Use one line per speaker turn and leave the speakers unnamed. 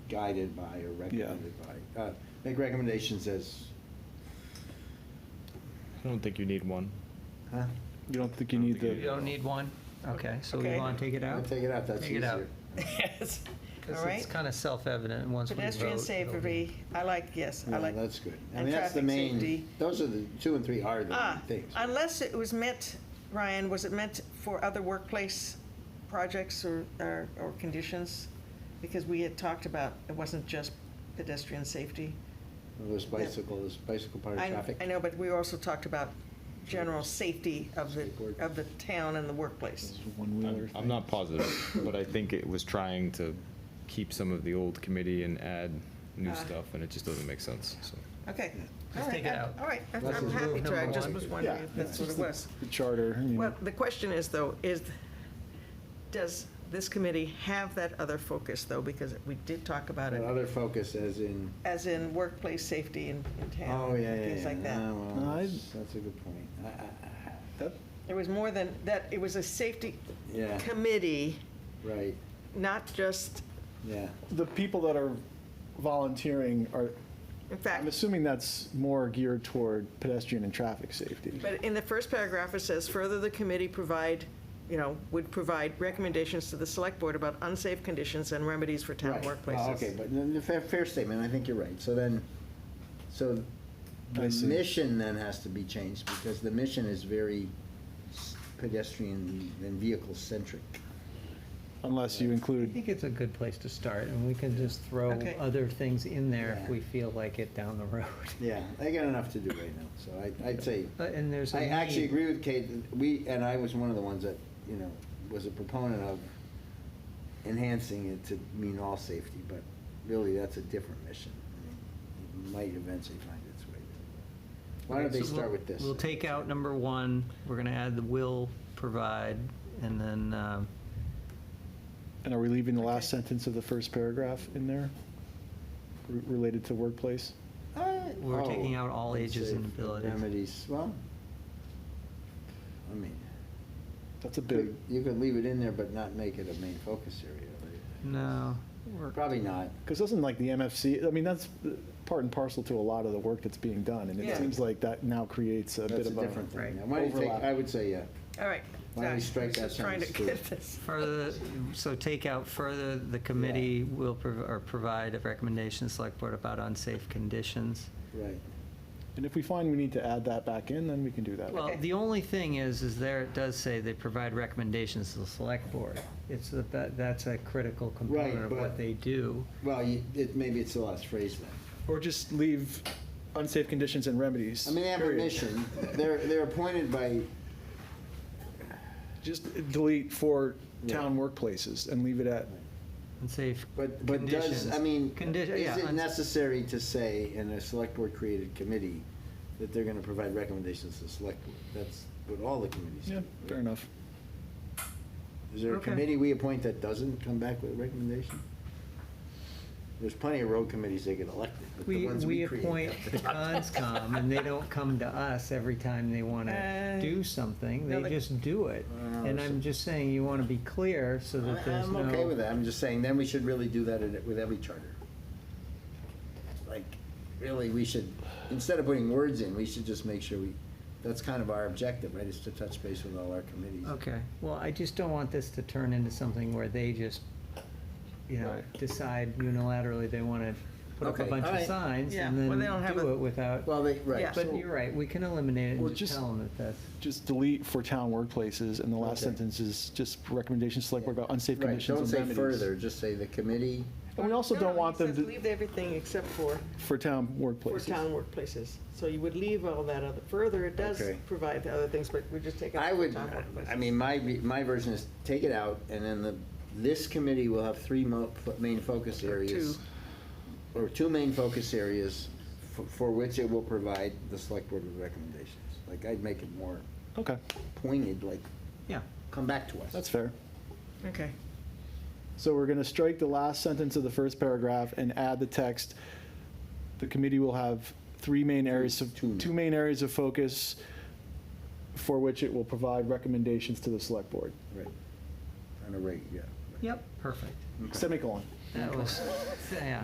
guided by or recommended by. Uh, Make recommendations as,
I don't think you need one.
huh?
You don't think you
I don't
need
think
the.
you
You don't need one? Okay, so we
Okay.
want to take it out?
Take it out, that's
Take it out.
easier.
Yes, all
Because it's
right.
kind of self-evident once we vote.
Pedestrian
it'll be-
safety, I like, yes, I
Yeah,
like.
That's good. I
and
mean, that's the
traffic
main,
safety.
those are the, two and three are the main
Ah,
things.
unless it was meant, Ryan, was it meant for other workplace projects or, or or conditions? Because we had talked about, it wasn't just pedestrian safety.
Those bicycles, bicycle part of
I-
traffic.
I know, but we also talked about general safety of the,
Skateboard.
of the town and the workplace.
I'm- I'm not positive, but I think it was trying to keep some of the old committee and add new
Ah.
stuff, and it just doesn't make sense, so.
Okay.
Just
All right,
take it
I-
out.
All right, I'm
Let's
I'm
just
happy
remove
to, I
number
just
one.
was
Yeah,
wondering if that's
yeah.
what it was.
The charter, I mean,
Well, the question is, though, is, does this committee have that other focus, though? Because we did talk about it,
Another focus as in,
as in workplace safety in in town.
oh, yeah, yeah, yeah.
Things like
Ah,
that.
well,
No, I-
that's- That's a good point. Ah, I- I- I-
that-
There was more than, that, it was a safety
Yeah,
committee,
right,
not just,
yeah.
the people that are volunteering are,
in
I'm
fact,
assuming that's more geared toward pedestrian and traffic safety.
but in the first paragraph, it says, further, the committee provide, you know, would provide recommendations to the select board about unsafe conditions and remedies for town
Right. Well,
workplaces.
Okay, but then the fair, fair statement, I think you're right. So then, so
I
the
see.
mission then has to be changed because the mission is very s- pedestrian and vehicle centric.
Unless you
I
include,
think it's a good place to start, and we can just throw
Okay.
other things in there
Yeah.
if we feel like it down the road.
Yeah, I got enough to do right now, so I, I'd say,
But- And there's a
I actually
need.
agree with Kate, we, and I was one of the ones that, you know, was a proponent of enhancing it to mean all safety, but really, that's a different mission. I mean, It might eventually find its way there. Why don't
Okay,
they
so we'll-
start with this?
We'll take out number one, we're gonna add the will provide, and then, um,
and are we leaving the last
Okay.
sentence of the first paragraph in there? re- Related to workplace?
Uh,
We're
oh,
taking out all
let's
ages
say
and abilities.
Remedies, well, I mean,
That's a big,
you could leave it in there, but not make it a main focus area. right?
no, we're-
Probably not.
because doesn't like the MFC, I mean, that's uh, part and parcel to a lot of the work that's being done. And
Yeah.
it seems like that now creates a bit
That's a
of a,
different thing.
Right.
Now, Why don't you take,
Overlap.
I would say, yeah.
All right.
Why don't we
Josh,
strike
I'm
that
just Trying to
sentence,
get
too?
this.
further, so take out further, the committee will, prov- or provide recommendations, select board about unsafe conditions.
Right.
and if we find we need to add that back in, then we can do that.
Well,
Okay.
the only thing is, is there, it does say they provide recommendations to the select board. It's, that- that, that's a critical component of
but-
what they do.
Well, you, it, maybe it's the last phrase then.
Or just leave unsafe conditions and remedies.
I mean, they have a
period.
mission. They're, they're appointed by,
Just delete for
Yeah.
town workplaces and leave it at,
Unsafe
but, but does,
conditions.
I mean,
Condi- yeah,
is it
uns-
necessary to say in a select board created committee that they're gonna provide recommendations to the select board? That's what all the committees do.
yeah, fair
right?
enough.
Is there a
Okay.
committee we appoint that doesn't come back with a recommendation? There's plenty of road committees that get elected, but the
We,
ones
we
we create.
appoint the conscom, and they don't come to us every time they want to
Uh,
do something,
no,
they
they-
just do it.
Wow,
And
so-
I'm just saying, you want to be clear so
I-
that there's
I'm okay with
no,
that, I'm just saying, then we should really do that in- with every charter. Like, really, we should, instead of putting words in, we should just make sure we, that's kind of our objective, right, is to touch base with all our committees.
okay, well, I just don't want this to turn into something where they just, you know,
Right.
decide unilaterally they want to put up a
Okay,
bunch
all
of
right.
signs
Yeah,
and
well, they don't
then
have
do
a-
it without,
Well, they,
Yeah.
right,
but
so-
you're right, we can eliminate it
Well,
and just
just-
tell them that that's.
Just delete for town workplaces, and the last
Okay.
sentence is just recommendations, select board about unsafe
right,
conditions and
Don't say
remedies.
further, just say the committee,
And we also
No,
don't
no,
want
he
them
said
to,
Leave everything except for,
for town
for
workplaces.
town workplaces. So you would leave all that other, further, it does
Okay.
provide the other things, but we just take out.
I
for
would,
town workplaces.
I mean, my, my version is take it out, and then the, this committee will have three mo, main focus areas. Or two main focus areas for, for which it will provide the select board with recommendations. Like, I'd make it more
Okay,
pointed, like,
Yeah.
come back to us.
that's fair.
Okay.
So we're going to strike the last sentence of the first paragraph and add the text. The committee will have three main areas of,
Two.
two main areas of focus for which it will provide recommendations to the select board.
Right. On a reg, yeah.
Yep. Perfect.
Semicolon.
That was, yeah.